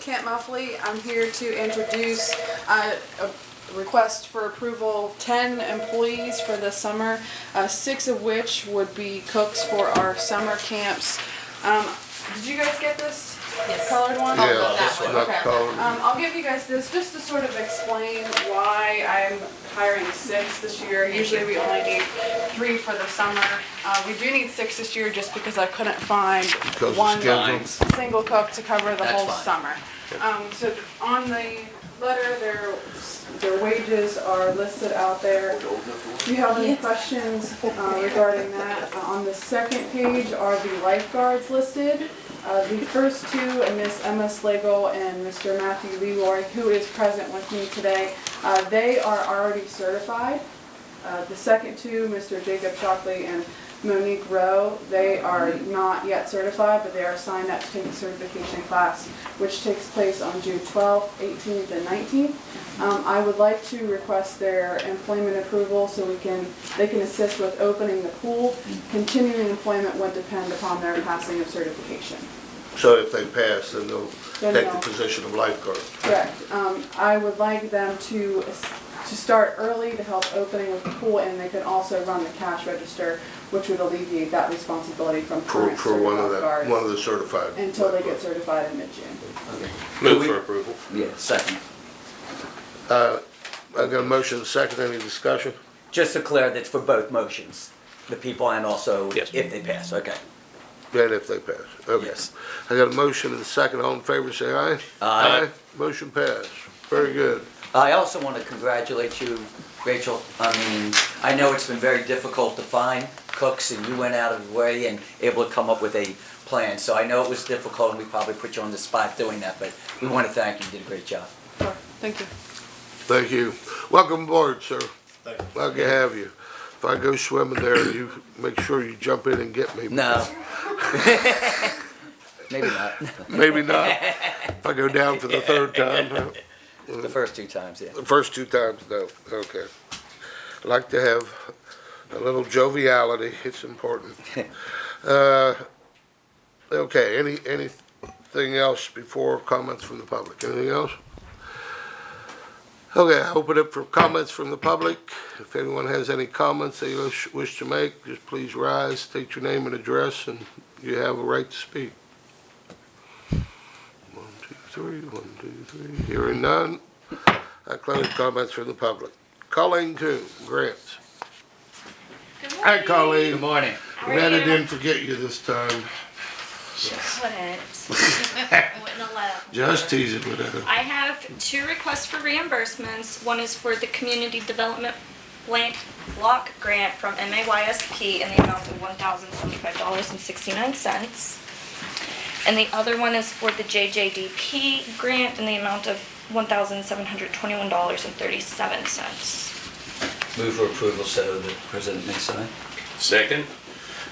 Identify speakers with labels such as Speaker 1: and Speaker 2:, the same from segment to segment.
Speaker 1: Kent Muffley. I'm here to introduce uh, a request for approval, 10 employees for the summer, uh, six of which would be cooks for our summer camps. Um, Did you guys get this
Speaker 2: Yes.
Speaker 1: colored one?
Speaker 2: Yeah,
Speaker 3: Yeah,
Speaker 2: that's
Speaker 3: that's
Speaker 2: one.
Speaker 3: not
Speaker 1: Okay.
Speaker 3: called.
Speaker 1: Um, I'll give you guys this just to sort of explain why I'm hiring six this year. Usually we only need three for the summer. Uh, we do need six this year just because I couldn't find
Speaker 3: Because of
Speaker 1: one
Speaker 3: schedules.
Speaker 1: single cook to cover the
Speaker 2: That's
Speaker 1: whole
Speaker 2: fine.
Speaker 1: summer. Um, so on the letter, their, their wages are listed out there. Do you have any questions uh, regarding that? Uh, On the second page are the lifeguards listed. Uh, The first two, uh, Miss Emma Slagle and Mr. Matthew Leroy, who is present with me today, uh, they are already certified. Uh, The second two, Mr. Jacob Shockley and Monique Rowe, they are not yet certified, but they are signed up to take the certification class, which takes place on June 12th, 18th, and 19th. Um, I would like to request their employment approval so we can, they can assist with opening the pool. Continuing employment would depend upon their passing of certification.
Speaker 3: So if they pass, then they'll
Speaker 1: Then
Speaker 3: take the
Speaker 1: they'll-
Speaker 3: position of lifeguard.
Speaker 1: Correct. Um, I would like them to, to start early to help opening of the pool, and they can also run the cash register, which would alleviate that responsibility from
Speaker 3: For,
Speaker 1: current
Speaker 3: for one of
Speaker 1: certified
Speaker 3: the, one of
Speaker 1: guards
Speaker 3: the certified.
Speaker 1: until they get
Speaker 3: lifeguards.
Speaker 1: certified in mid-June.
Speaker 4: Move for approval.
Speaker 2: Yeah, second.
Speaker 3: I got a motion, a second, any discussion?
Speaker 2: Just to clear, that's for both motions, the people and also
Speaker 4: Yes.
Speaker 2: if they pass, okay.
Speaker 3: And if they pass, okay.
Speaker 2: Yes.
Speaker 3: I got a motion and a second, all in favor, say aye.
Speaker 2: Aye.
Speaker 3: Motion passed, very good.
Speaker 2: I also want to congratulate you, Rachel. I mean, I know it's been very difficult to find cooks, and you went out of your way and able to come up with a plan. So I know it was difficult, and we probably put you on the spot doing that, but we want to thank you, you did a great job.
Speaker 1: Thank you.
Speaker 3: Thank you. Welcome aboard, sir. Glad to have you. If I go swimming there, you make sure you jump in and get me.
Speaker 2: No. Maybe not,
Speaker 3: Maybe not. If I go down for the third time, no.
Speaker 2: the first two times, yeah.
Speaker 3: The first two times, no, okay. I Like to have a little joviality, it's important. Uh, Okay, any, anything else before comments from the public? Anything else? Okay, I open it for comments from the public. If anyone has any comments they wish- wish to make, just please rise, state your name and address, and you have a right to speak. One, two, three, one, two, three. Hearing none, I close comments from the public. Colleen Coon, Grants.
Speaker 5: Good
Speaker 3: Hi,
Speaker 5: morning.
Speaker 3: Colleen.
Speaker 2: morning.
Speaker 5: How are
Speaker 3: Glad I
Speaker 5: you?
Speaker 3: didn't forget you this time.
Speaker 5: Couldn't. I wouldn't allow.
Speaker 3: Just teasing with that.
Speaker 5: I have two requests for reimbursements. One is for the Community Development Blank Block Grant from MAYSP in the amount of one thousand seventy-five dollars and sixty-nine cents. And the other one is for the JJDP grant in the amount of one thousand seven hundred twenty-one dollars and thirty-seven cents.
Speaker 2: Move for approval, so the president may sign.
Speaker 4: Second?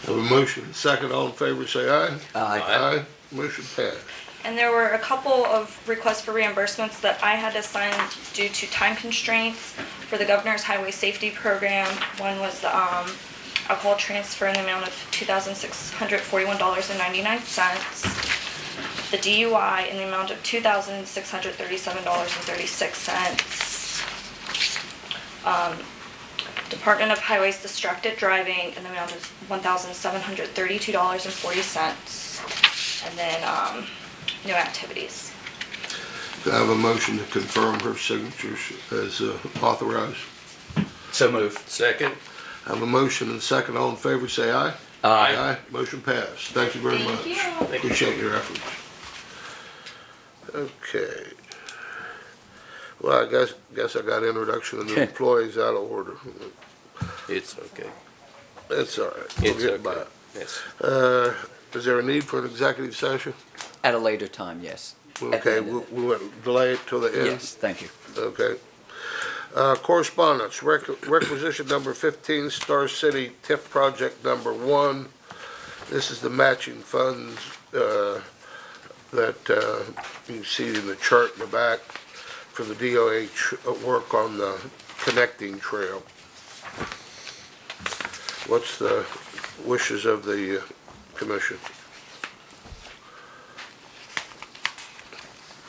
Speaker 3: Have a motion, second, all in favor, say aye.
Speaker 2: Aye.
Speaker 3: Aye. Motion passed.
Speaker 5: And there were a couple of requests for reimbursements that I had to sign due to time constraints for the governor's highway safety program. One was the um, alcohol transfer in the amount of two thousand six hundred forty-one dollars and ninety-nine cents. The DUI in the amount of two thousand six hundred thirty-seven dollars and thirty-six cents. Um, Department of Highways distracted driving in the amount of one thousand seven hundred thirty-two dollars and forty cents. And then, um, no activities.
Speaker 3: Do I have a motion to confirm her signatures as uh, authorized?
Speaker 2: So move.
Speaker 4: Second?
Speaker 3: I Have a motion and second, all in favor, say aye.
Speaker 2: Aye.
Speaker 3: Motion passed. Thank you very much.
Speaker 5: Thank you.
Speaker 4: Thank you.
Speaker 3: Appreciate your efforts. Okay. Well, I guess, guess I got introduction of new employees out of order.
Speaker 4: It's okay.
Speaker 3: That's all right. We'll
Speaker 4: It's
Speaker 3: get by
Speaker 4: okay.
Speaker 3: it.
Speaker 4: Yes.
Speaker 3: Uh, Is there a need for an executive session?
Speaker 2: At a later time, yes. At the
Speaker 3: Okay,
Speaker 2: end of
Speaker 3: we
Speaker 2: it.
Speaker 3: we went delay it till the end?
Speaker 2: Uh, Yes, thank you.
Speaker 3: Okay. Uh, Correspondence, rec- requisition number 15, Star City TIF project number one. This is the matching funds uh, that uh, you see in the chart in the back for the DOH uh, work on the connecting trail. What's the wishes of the uh, commission?